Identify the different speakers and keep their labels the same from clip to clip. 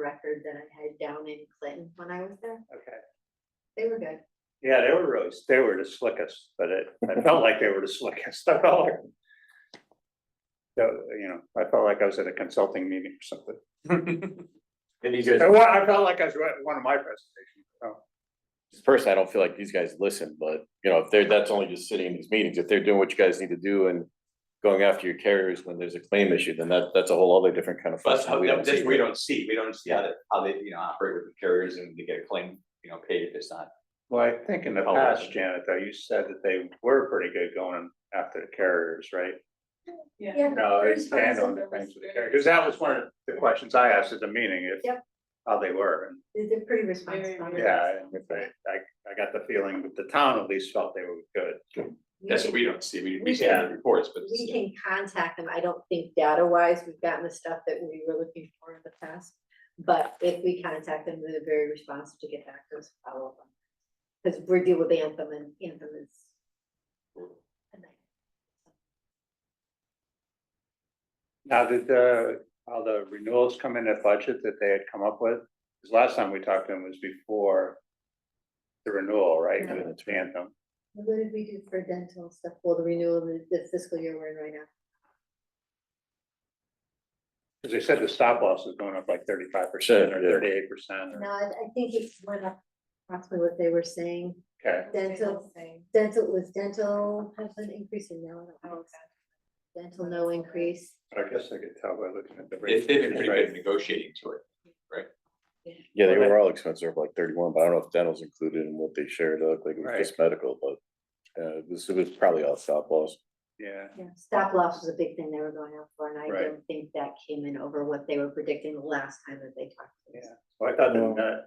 Speaker 1: record that I had down in Clinton when I was there.
Speaker 2: Okay.
Speaker 1: They were good.
Speaker 2: Yeah, they were really, they were the slickest, but it, I felt like they were the slickest. I felt like. So, you know, I felt like I was at a consulting meeting or something.
Speaker 3: And these guys,
Speaker 2: And
Speaker 4: Oh,
Speaker 2: what- I felt like I was at one of my presentations. so.
Speaker 3: personally, I don't feel like these guys listen, but you know, if they're, that's only just sitting in these meetings, if they're doing what you guys need to do and. Going after your carriers when there's a claim issue, then that, that's a whole other different kind of.
Speaker 4: But that's
Speaker 3: function
Speaker 4: how,
Speaker 3: we don't
Speaker 4: that's,
Speaker 3: see.
Speaker 4: we don't see, we don't see how they, how they, you know, operate with the carriers and they get a claim, you know, paid if it's not.
Speaker 2: Well, I think in the
Speaker 4: Oh,
Speaker 2: past,
Speaker 4: yeah.
Speaker 2: Janet, though, you said that they were pretty good going after the carriers, right?
Speaker 1: Yeah.
Speaker 2: No,
Speaker 1: there
Speaker 2: they
Speaker 1: was
Speaker 2: stand
Speaker 1: some
Speaker 2: on the
Speaker 1: that
Speaker 2: things
Speaker 1: was
Speaker 2: with the
Speaker 1: good.
Speaker 2: carriers, because that was one of the questions I asked at the meeting, if.
Speaker 1: Yep.
Speaker 2: How they were, and
Speaker 1: They- They're pretty responsive.
Speaker 5: Very, very
Speaker 2: yeah, and if they, I, I got the feeling that the town at least felt they were good.
Speaker 1: We
Speaker 4: That's
Speaker 1: can-
Speaker 4: what we don't see, we,
Speaker 1: We
Speaker 4: we see it in
Speaker 2: can-
Speaker 4: the reports, but.
Speaker 1: We can contact them. I don't think data wise, we've gotten the stuff that we were looking for in the past. But if we contact them, they're very responsive to get back to us, follow up. Because we're dealing with Anthem and Anthem is. a nightmare.
Speaker 2: Now, did the, how the renewals come in that budget that they had come up with? Because last time we talked to them was before the renewal, right?
Speaker 3: Yeah,
Speaker 2: with
Speaker 3: that's right.
Speaker 2: Anthem.
Speaker 1: What did we do for dental stuff? Well, the renewal, of the- the fiscal year we're in right now.
Speaker 2: Because they said the stop loss is going up like thirty-five percent or
Speaker 3: Yeah.
Speaker 2: thirty-eight percent.
Speaker 1: No, I, I think it went up approximately what they were saying.
Speaker 2: Okay,
Speaker 1: Dental, dental was dental has an increase in now. I don't know. Dental, no increase.
Speaker 2: but I guess I could tell by looking at the.
Speaker 4: They,
Speaker 2: rate.
Speaker 4: they've been pretty good at negotiating to it.
Speaker 3: Yeah, they were all expensive, like thirty-one, but I don't know if dental's included in what they shared, It looked like it
Speaker 2: Right.
Speaker 3: was just medical, but. Uh, this was probably all stop loss.
Speaker 2: Yeah,
Speaker 1: Yeah, Stop loss was a big thing they were going out for, and I
Speaker 2: Right.
Speaker 1: don't think that came in over what they were predicting the last time that they talked. to us.
Speaker 2: Yeah. well, I thought the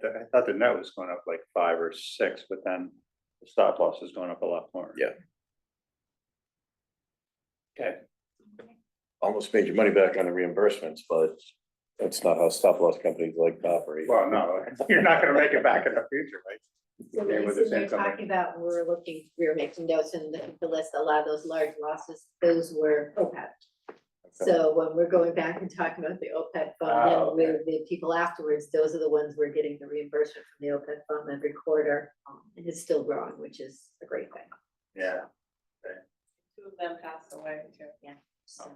Speaker 2: net, I thought the net was going up like five or six, but then the stop loss is going up a lot more.
Speaker 3: Yeah.
Speaker 2: Okay,
Speaker 3: Almost made your money back on the reimbursements, but that's not how stop loss companies like to operate.
Speaker 2: well, no, you're not gonna make it back in the future, right?
Speaker 1: So
Speaker 2: Okay,
Speaker 1: when you
Speaker 2: with the
Speaker 1: sit there
Speaker 2: same company.
Speaker 1: talking about, we were looking, we were making notes and the the list, a lot of those large losses, those were OPEB. So when we're going back and talking about the OPEB
Speaker 2: Ah,
Speaker 1: fund, then with the people afterwards, those are the ones we're getting the reimbursement from the OPEB fund every quarter. um, And it's still growing, which is a great thing,
Speaker 2: Yeah.
Speaker 5: Two of them passed away too.
Speaker 1: so.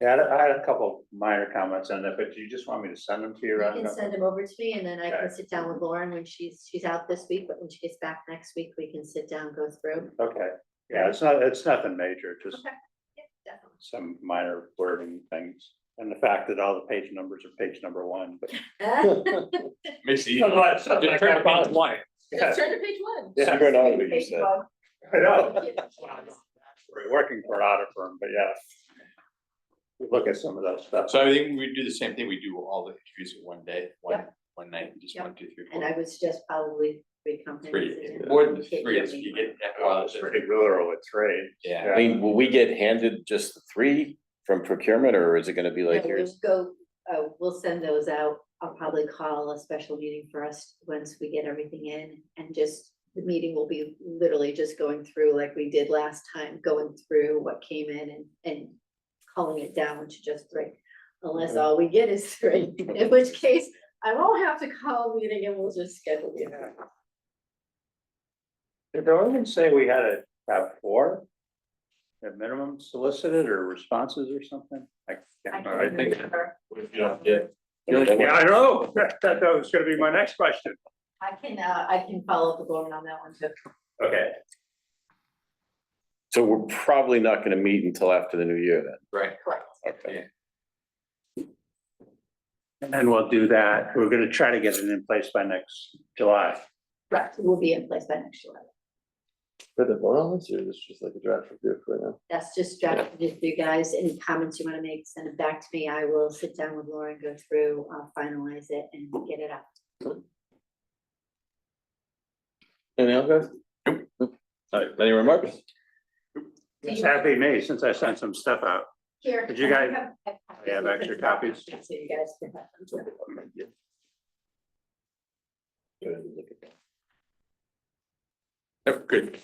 Speaker 2: Yeah, I had a- I had a couple minor comments on that, but do you just want me to send them to you?
Speaker 1: You
Speaker 2: Rhonda?
Speaker 1: can send them over to me and then I can
Speaker 2: Okay.
Speaker 1: sit down with Lauren when she's, she's out this week, but when she gets back next week, we can sit down, go through.
Speaker 2: Okay, yeah, it's not, it's nothing major, just
Speaker 1: Okay. Yeah, definitely.
Speaker 2: some minor wording things. And the fact that all the page numbers are page number one, but.
Speaker 4: Makes it easy.
Speaker 2: Just
Speaker 4: Just turn it on.
Speaker 2: Yeah,
Speaker 5: turn to page one.
Speaker 2: yeah,
Speaker 3: Figure it out what you said.
Speaker 2: I know. We're Working for an audit firm, but yeah. We Look at some of that stuff.
Speaker 4: So I think we do the same thing, we do all the interviews in one day, one, one night, just one, two, three,
Speaker 1: And I
Speaker 4: four,
Speaker 1: would suggest probably three companies.
Speaker 4: three,
Speaker 1: and then
Speaker 4: more than
Speaker 1: get
Speaker 4: three,
Speaker 1: your
Speaker 4: it's- you
Speaker 1: meeting.
Speaker 4: get.
Speaker 2: Well, it's pretty literal with trade.
Speaker 4: Yeah.
Speaker 3: I mean, will we get handed just the three from procurement, or is it gonna be
Speaker 1: No,
Speaker 3: like
Speaker 1: we'll
Speaker 3: here's?
Speaker 1: Go, uh, we'll send those out. I'll probably call a special meeting for us once we get everything in and just. The meeting will be literally just going through like we did last time, going through what came in and, and calling it down to just three. Unless all we get is three, in which case I won't have to call a meeting and we'll just schedule it.
Speaker 2: Did the ordinance say we had to have four? At minimum solicited or responses or something? I can't remember.
Speaker 4: I think-
Speaker 1: remember.
Speaker 2: Yeah, I know. That, that was gonna be my next question.
Speaker 1: I can, uh, I can follow up with Lauren on that one too.
Speaker 2: Okay.
Speaker 3: So we're probably not gonna meet until after the new year then.
Speaker 4: Right.
Speaker 1: Correct.
Speaker 3: Okay.
Speaker 2: And we'll do that. We're gonna try to get it in place by next July.
Speaker 1: Correct. We'll be in place by next July.
Speaker 6: For the vote on this, or this is just like a draft review for now?
Speaker 1: That's just drafted it for you guys. Any comments you want to make, send it back to me. I will sit down with Lauren, go through, uh, finalize it and get it out.
Speaker 6: Anything else, guys?
Speaker 3: All right, any remarks?
Speaker 2: It's happy me since I sent some stuff out.
Speaker 1: Here.
Speaker 2: Did you guys-
Speaker 1: I
Speaker 2: Yeah,
Speaker 1: have
Speaker 2: back to your copies.
Speaker 1: So you guys can have them too.
Speaker 4: Yep, good.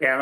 Speaker 2: Yeah, I'm